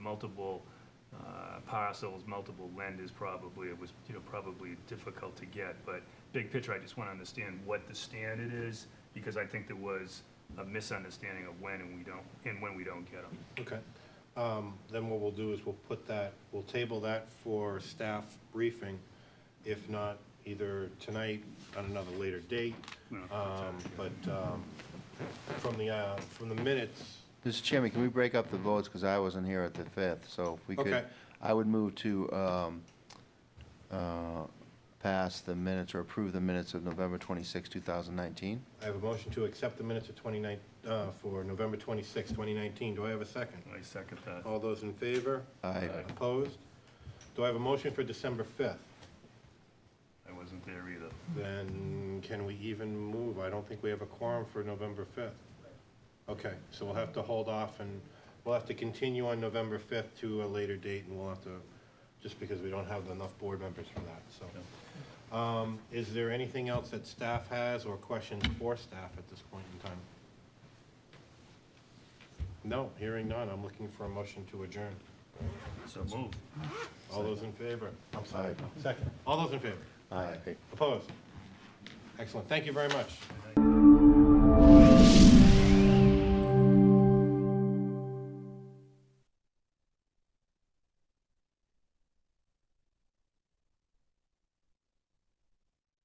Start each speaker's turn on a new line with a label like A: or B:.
A: multiple uh, parcels, multiple lenders probably, it was, you know, probably difficult to get. But big picture, I just want to understand what the standard is, because I think there was a misunderstanding of when and we don't, and when we don't get them.
B: Okay. Um, Then what we'll do is we'll put that, we'll table that for staff briefing, if not either tonight, on another later date. Um, But um, from the, uh, from the minutes,
C: Mr. Chairman, can we break up the votes, because I wasn't here at the 5th, so if we could,
B: Okay.
C: I would move to um, uh, pass the minutes or approve the minutes of November 26, 2019.
B: I have a motion to accept the minutes of 29, uh, for November 26, 2019. Do I have a second?
A: I second that.
B: All those in favor?
C: I
B: Opposed? Do I have a motion for December 5th?
A: I wasn't there either.
B: Then can we even move? I don't think we have a quorum for November 5th. Okay, so we'll have to hold off and we'll have to continue on November 5th to a later date and we'll have to, just because we don't have enough board members for that, so. Um, Is there anything else that staff has or questions for staff at this point in time? No, hearing none. I'm looking for a motion to adjourn.
A: So move.
B: All those in favor? I'm sorry, second. All those in favor?
C: Aye.
B: Opposed? Excellent. Thank you very much.